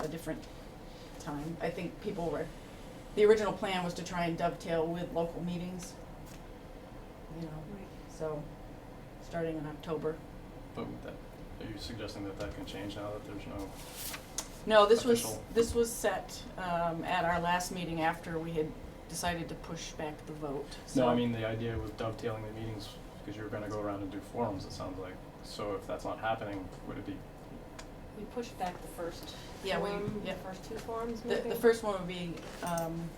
a different time. I think people were, the original plan was to try and dovetail with local meetings. You know, so, starting in October. But would that, are you suggesting that that can change now that there's no, No, this was, Official. this was set, um, at our last meeting after we had decided to push back the vote, so. no, I mean, the idea with dovetailing the meetings, because you're gonna go around and do forums, it sounds like. So if that's not happening, would it be, We pushed back the first Yeah, we- form, yeah. the first two forms The, maybe? the first one would be, um,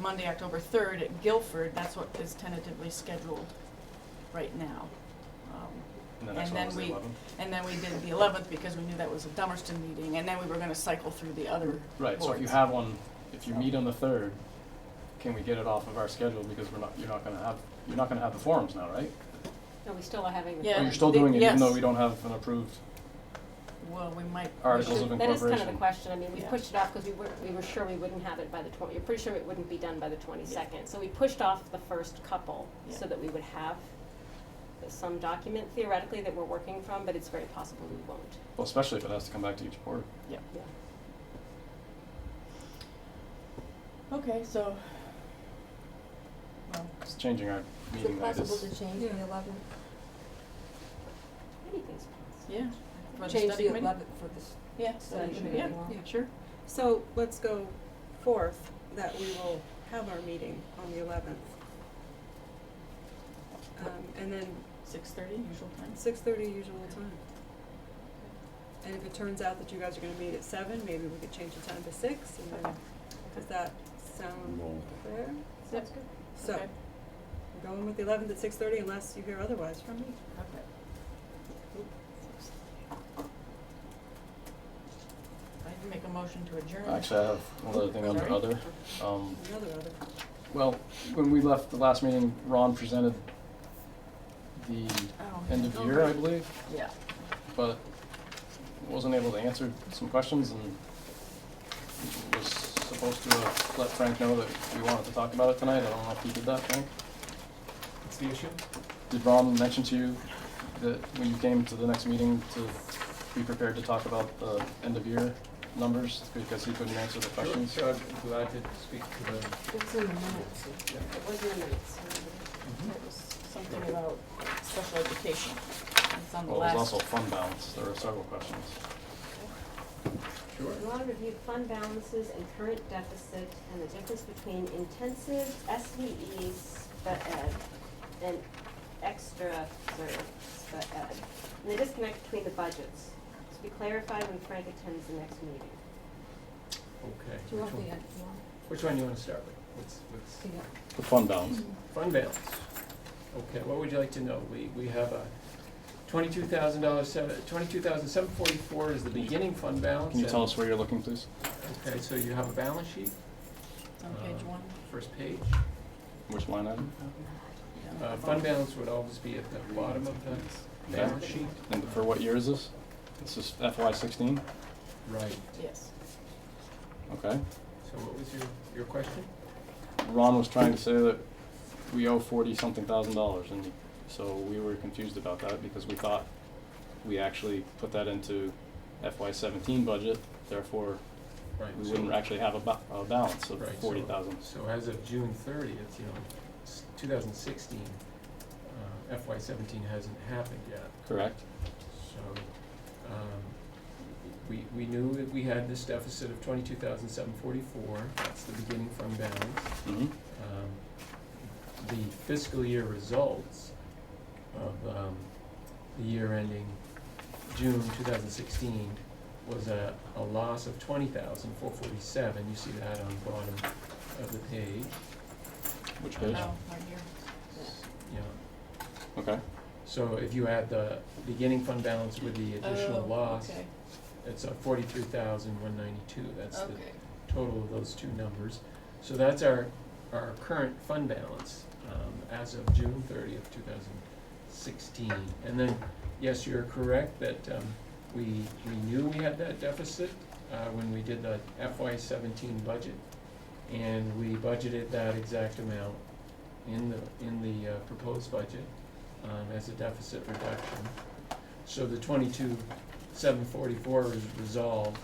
Monday, October third at Guilford, that's what is tentatively scheduled right now. Um, and the And next then one was the we- eleventh? and then we did the eleventh because we knew that was a Dummerston meeting, and then we were gonna cycle through the other Right, so if you boards. have one, if you So- meet on the third, can we get it off of our schedule, because we're not, you're not gonna have, you're not gonna have the forums now, right? No, we still are having the Yeah. Or forms. Oh, you're still the- doing it even though yes. we don't have an approved, Well, we might. we Articles should- of That is kind of the incorporation. question, I mean, we Yeah. pushed it off because we were, we were sure we wouldn't have it by the twen- you're pretty sure it wouldn't be done by the twenty-second. So we pushed off the first couple so Yeah. that we would have some document theoretically that we're working from, but it's very possible we won't. well, especially if it has to come back to each board. Yeah. Okay, so. Well, It's changing our Is meeting it night possible is, to change the eleventh? Anything's possible. yeah, for the Change study the committee? eleventh for this. yeah, study committee yeah, law. sure, So let's go forth that we will have our meeting on the eleventh. Um, and then six thirty, usual time. six thirty usual time. And if it turns out that you guys are gonna meet at seven, maybe we could change the time to six and then, does that sound Roll. fair? Sounds good. So, Okay. we're going with the eleventh at six thirty unless you hear otherwise from me. Okay. I can make a motion to adjourn. actually, I have one other thing under Sorry? other, um, Another other. Well, when we left the last meeting, Ron presented the Oh. end of year, I believe, Yeah. but wasn't able to answer some questions and was supposed to have let Frank know that we wanted to talk about it tonight. I don't know if he did that, Frank. What's the issue? Did Ron mention to you that when you came to the next meeting to be prepared to talk about the end of year numbers because he couldn't answer the questions? Sure, I'm glad to speak to them. It's in the minutes. It was in the minutes. Mm-hmm. It was something about special education. It's on the Well, there's last. also fund balance. There were several questions. Sure. We want to review fund balances and current deficit and the difference between intensive SVEs, but ed, and extra, sorry, but ed. And the disconnect between the budgets, to be clarified when Frank attends the next meeting. Okay. Do you Which want the, one, end- do you want which one you wanna start with? What's, what's, the- The fund balance. fund balance. Okay, what would you like to know? We, we have a twenty-two thousand dollars, seven, twenty-two thousand seven forty-four is the beginning fund balance. Can you and- tell us where you're looking, please? Okay, so you have a balance sheet, It's on page uh, one. first page. Which line item? Yeah. Uh, fund balance would always be at the bottom of the balance sheet. And for what year is this? This is FY sixteen, Right. Yes. okay. So what was your, your question? Ron was trying to say that we owe forty-something thousand dollars, and so we were confused about that because we thought we actually put that into FY seventeen budget, therefore Right, we so- wouldn't actually have a ba- a balance of Right, so- forty thousand. So as of June thirtieth, you know, two thousand sixteen, uh, FY seventeen hasn't happened yet. Correct? So, um, we, we knew that we had this deficit of twenty-two thousand seven forty-four, that's the beginning fund balance. Mm-hmm. Um, the fiscal year results of, um, the year ending June two thousand sixteen was a, a loss of twenty thousand four forty-seven, you see that on the bottom of the page. Which Uh, Oh, page? right here. Yeah, Okay, so if you add the beginning fund balance with the additional Oh, loss, okay. it's a forty-three thousand one ninety-two, that's the Okay. total of those two numbers. So that's our, our current fund balance, um, as of June thirtieth, two thousand sixteen. And then, yes, you're correct that, um, we, we knew we had that deficit, uh, when we did the FY seventeen budget. And we budgeted that exact amount in the, in the uh, proposed budget, um, as a deficit reduction. So the twenty-two, seven forty-four is resolved